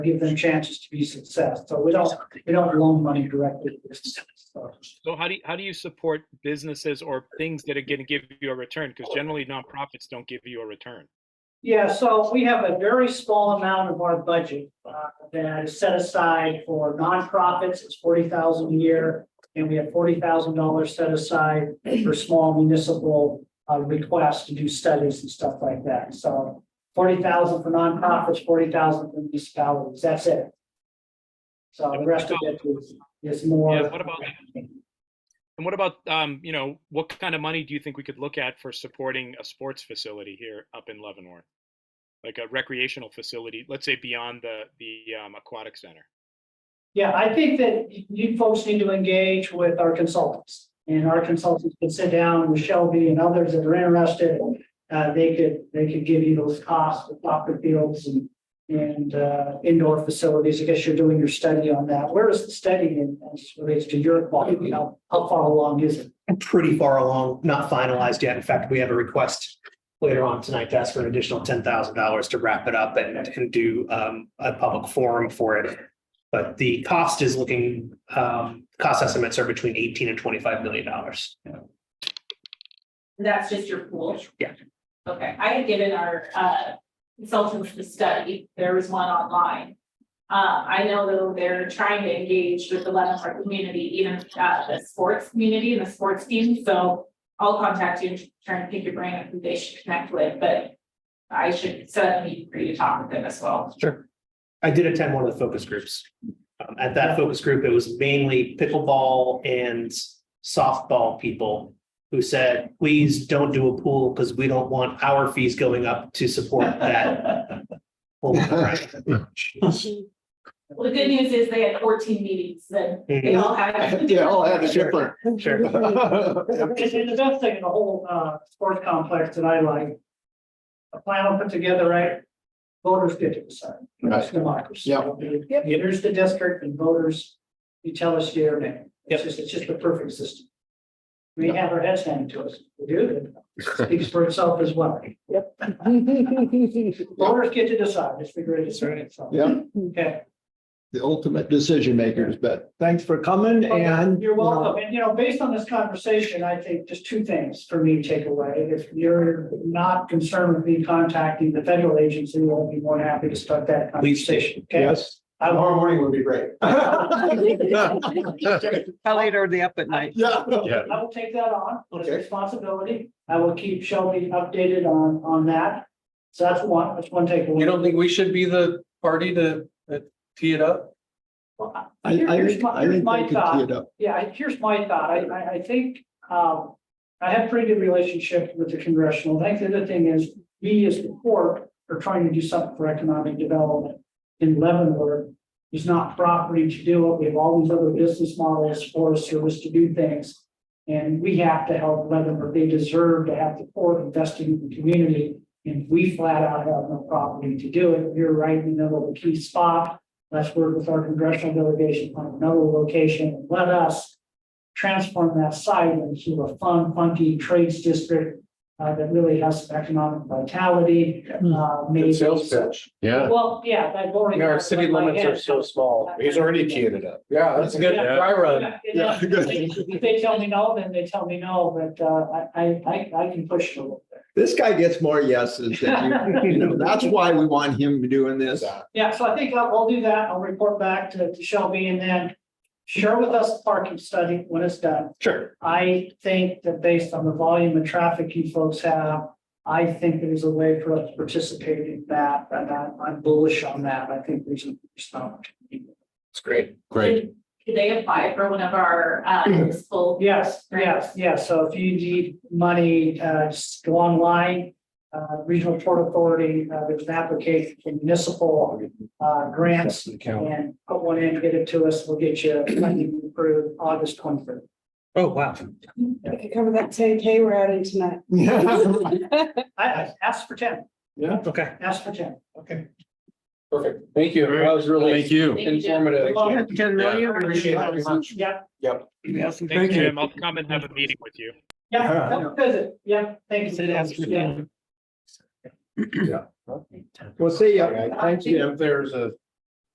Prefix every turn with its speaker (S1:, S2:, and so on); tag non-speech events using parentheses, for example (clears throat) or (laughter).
S1: give them chances to be success. So we don't, we don't loan money directly to businesses. So
S2: So how do you, how do you support businesses or things that are going to give you a return? Because generally nonprofits don't give you a return.
S1: Yeah, so we have a very small amount of our budget uh, that is set aside for nonprofits. It's forty thousand a year. And we have forty thousand dollars set aside for small municipal uh, requests to do studies and stuff like that. So forty thousand for nonprofits, forty thousand for municipalities. That's it. So the rest of it is, is more.
S2: Yeah, what about- And what about, um, you know, what kind of money do you think we could look at for supporting a sports facility here up in Leavenworth? Like a recreational facility, let's say beyond the, the um, aquatic center.
S1: Yeah, I think that you folks need to engage with our consultants. And our consultants could sit down with Shelby and others that are interested. Uh, they could, they could give you those costs with soccer fields and, and, uh, indoor facilities. I guess you're doing your study on that. Where is the study in, as relates to your quality? How, how far along is it?
S3: pretty far along, not finalized yet. In fact, we have a request later on tonight to ask for an additional ten thousand dollars to wrap it up and, and do um, a public forum for it. But the cost is looking, um, cost estimates are between eighteen and twenty-five million dollars.
S4: That's just your pool?
S3: Yeah.
S4: Okay, I had given our uh consultants the study, there was one online. Uh, I know though they're trying to engage with the Leavenworth community, even uh the sports community and the sports team, so. I'll contact you and try and pick your brain on who they should connect with, but I should set up a meeting for you to talk with them as well.
S3: Sure. I did attend one of the focus groups. Um, At that focus group, it was mainly pickleball and softball people who said, please don't do a pool because we don't want our fees going up to support that. pool."
S4: Well, the good news is they had fourteen meetings, then they all had.
S5: (laughs) Yeah, all have a
S3: Sure.
S5: different. (laughs)
S3: Sure.
S1: And and the best thing in the whole, uh, sports complex that I like. A plan will put together, right? Voters get to decide. It's
S5: Right.
S1: democracy.
S5: Yeah.
S1: There's the district and voters, you tell us your name. It's
S3: Yep.
S1: just, it's just the perfect system. We have our heads handed to us. We
S5: (laughs)
S1: do. It Speaks for itself as well. Yep. Voters get to decide. Just figure it out. So,
S5: Yeah,
S1: Okay.
S5: the ultimate decision makers, but
S3: Thanks for coming and.
S1: Oh, You're
S5: uh,
S1: welcome. And you know, based on this conversation, I think just two things for me to take away. If you're not concerned with me contacting the federal agency, we'll be more than happy to start that
S3: Please do.
S1: conversation. Okay?
S5: yes. (laughs)
S1: I'm all
S5: morning would
S1: (laughs)
S5: be great.
S6: How late are they up at night?
S5: Yeah.
S1: I will take that on, it's
S5: Okay.
S1: responsibility. I will keep Shelby updated on, on that. So that's one, that's one
S7: You
S1: takeaway.
S7: don't think we should be the party to uh, tee it up?
S5: I, I,
S1: Here's
S5: think-
S1: my-
S5: I think
S1: my
S5: they could
S1: thought.
S5: tee it up.
S1: Yeah, I- here's my thought. I, I, I think, um, I have pretty good relationship with the congressional. I think the other thing is, we as the court are trying to do something for economic development in Leavenworth. It's not property to do it. We have all these other business models, Forest Service to do things. And we have to help Leavenworth. They deserve to have the court investing in the community. And we flat out have no property to do it. You're right in the middle of a key spot. Let's work with our congressional delegation on another location. Let us transform that site into a fun, funky trades district uh, that really has some economic vitality. uh, maybe-
S8: Hmm. Good sales pitch.
S9: Yeah,
S1: Well, yeah, that already.
S7: Our city limits are so small.
S9: he's already teeing it up.
S8: Yeah, that's
S7: That's a good
S1: Yeah.
S7: dry run.
S1: Yeah, (laughs)
S5: (laughs)
S1: you know, If they tell me no, then they tell me no, but uh, I, I, I, I can push it a little bit.
S5: This guy gets more yeses than (laughs) you, you know, that's why we want him doing this.
S1: Yeah, so I think I'll, I'll do that. I'll report back to to Shelby and then share with us the parking study when it's done.
S3: Sure.
S1: I think that based on the volume of traffic you folks have, I think there's a way for us to participate in that, and I'm, I'm bullish on that. I think there's a, there's an opportunity.
S8: It's great.
S9: Great.
S4: Did- Did they apply for one of our
S5: (clears throat)
S4: uh municipal
S1: Yes, yes, yes. So if you need money, uh, just go online. Uh, Regional Port Authority, uh, there's an application for municipal, uh, grants and put one in, get it to us. We'll get you funding approved August twenty-third.
S3: Oh, wow.
S6: I could cover that ten K we're adding
S3: (laughs)
S6: tonight. (laughs)
S1: I, I asked for ten,
S3: Okay.
S1: ask for ten.
S3: Okay.
S7: Perfect. Thank you. That was really
S9: Thank you.
S7: informative.
S6: Ten million.
S7: Appreciate it very much.
S1: Yeah,
S2: Thanks, Jim. I'll come and have a meeting with you.
S1: yeah, come visit. Yeah, thank you.
S3: Said ask for
S1: Yeah.
S3: ten.
S5: Well, see ya.
S8: If there's a